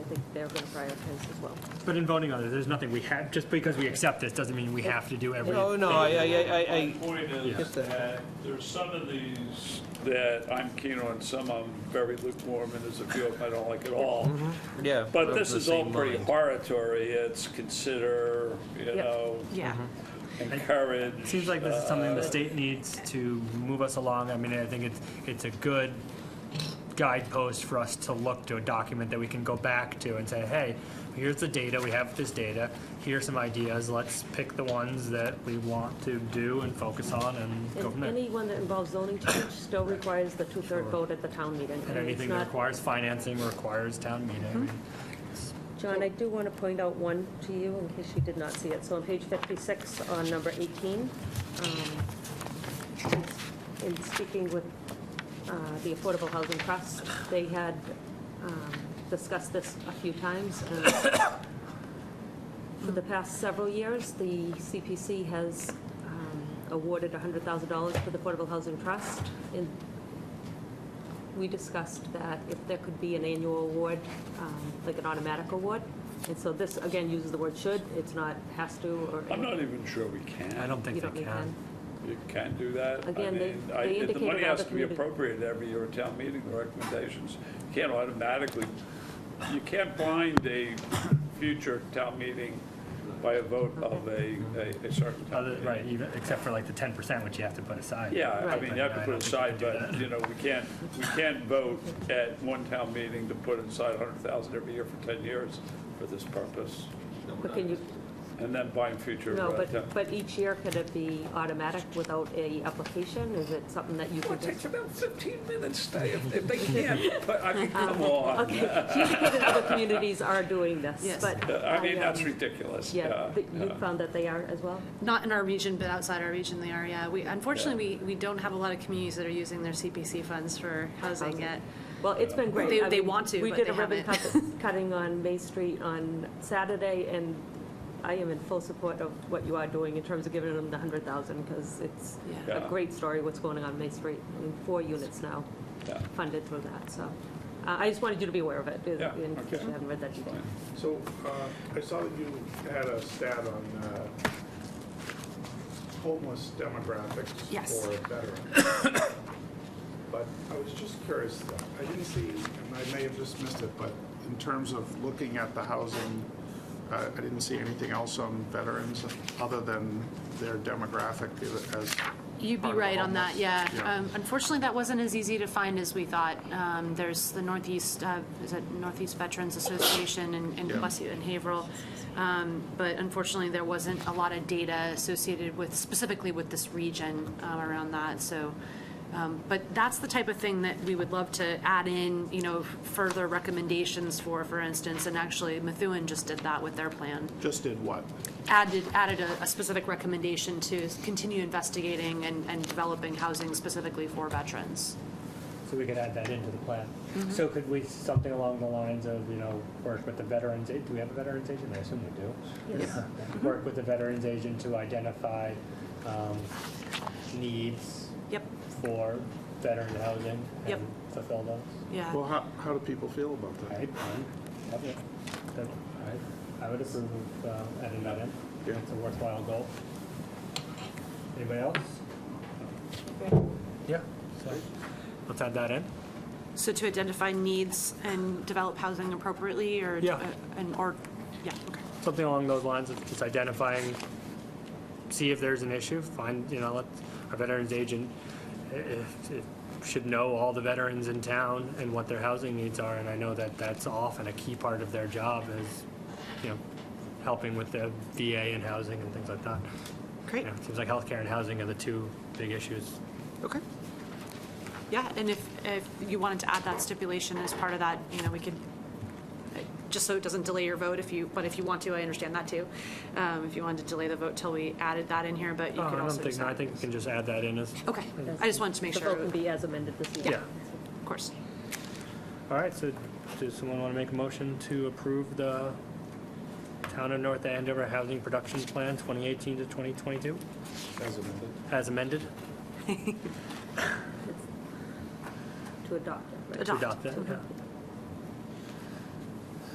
they're going to prioritize as well. But in voting on it, there's nothing we have, just because we accept this doesn't mean we have to do everything. Oh, No, no, I, I, I, My I- point is Yes. that there's some of these that I'm keen on, some I'm very lukewarm, and there's a few of them I don't like at all. I, yeah. But I'm this Mm-hmm. the is all same pretty mind. hortatory. It's consider, you know, Yeah. Mm-hmm. encourage. It Seems like this is something the state needs to move us along. I mean, I think it's, it's a good guidepost for us to look to a document that we can go back to and say, hey, here's the data, we have this data, here's some ideas, let's pick the ones that we want to do and focus on and go from And there. anyone that involves zoning change still requires the two-third vote at the town meeting. And I mean, it's anything that not- requires financing requires town meeting. John, I do want to point out one to you in case you did not see it. So on page 56, on number 18, um, in speaking with uh, the Affordable Housing Trust, they had um, discussed this a few times. and For the past several years, the CPC has um, awarded $100,000 to the Affordable Housing Trust. And we discussed that if there could be an annual award, um, like an automatic award. And so this, again, uses the word should, it's not has to or. I'm not even sure we can. I don't You think don't they need can. that. You can do that. I Again, they- mean, they I- The indicated money all has the to be communi- appropriated every year at town meeting, the recommendations. You can't automatically, you can't bind a future town meeting by a vote of a, a- a certain town Other, meeting. right, even, except for like the 10%, which you have to put aside. Yeah, I Right. mean, you have to Yeah, I put don't think aside, we can do but, that. you know, we can't, we can't vote at one town meeting to put aside 100,000 every year for 10 years for this purpose, But can you, and then buying future. no, uh, town- but, but each year, could it be automatic without a application? Is it something that you Well, could It takes just? about 15 minutes, Dave, if they can't, but, I mean, come on. Um, Okay, she indicated other communities are doing this, Yes. but. I mean, um, that's ridiculous. Yeah, but yeah. you found that they are as well? Not in our region, but outside our region, they are, yeah. We, unfortunately, we, we don't have a lot of communities that are using their CPC funds for housing Housing. yet. Well, it's been great. They- I they mean, want to, but they We did a ribbon cut- cutting on May Street on Saturday, and I am in full support of what you are doing in terms of giving them the 100,000, because it's Yeah. a Yeah. great story what's going on May Street. I mean, Four units now Yeah. funded through that, so uh, I just wanted you to be aware of it, Yeah, in okay. case you haven't read that today. So, uh, I saw that you had a stat on uh, homeless demographics Yes. for veterans. But I was just curious, I didn't see, and I may have just missed it, but in terms of looking at the housing, uh, I didn't see anything else on veterans other than their demographic as. You'd be part of the right on that, homeless. yeah. Um, Unfortunately, that wasn't as easy to find as we thought. Um, There's the Northeast, uh, is it Northeast Veterans Association in in Yeah. Plessy and Haverhill. Um, But unfortunately, there wasn't a lot of data associated with, specifically with this region um, around that, so. um, But that's the type of thing that we would love to add in, you know, further recommendations for, for instance, and actually Methuen just did that with their plan Just did what? added, added a, a specific recommendation to continue investigating and, and developing housing specifically for veterans. So we could add that into the plan. So could we, something along the lines of, you know, work with the veterans, a- do we have a veterans agent? I assume we do. Work with the veterans agent to identify um, needs Yep, for veteran housing Yep. and fulfill those. yeah. Well, how, how do people feel about All that? right, fine. Love it. That- all right. I would approve of uh, adding that in. Yeah. It's a worthwhile goal. Anybody else? Yeah. So Let's add that in. So to identify needs and develop housing appropriately or, uh, Yeah. and, or, yeah, okay. something along those lines of just identifying, see if there's an issue, find, you know, let our veterans agent i- if- if- should know all the veterans in town and what their housing needs are, and I know that that's often a key part of their job is, you know, helping with the VA and housing and things like that. You Great. know, it Seems like healthcare and housing are the two big issues. Okay. Yeah, and if, if you wanted to add that stipulation as part of that, you know, we could, uh, just so it doesn't delay your vote if you, but if you want to, I understand that too. Um, if you wanted to delay the vote till we added that in here, but you Oh, could I don't also think, just. no, I think we can just add that in as, Okay, I just wanted to make The vote sure, can of be as amended this evening. Yeah. course. all right, so does someone want to make a motion to approve the Town of North Andover Housing Production Plan 2018 to 2022? As amended. As amended? To adopt it, right? Adopt. To adopt it, yeah.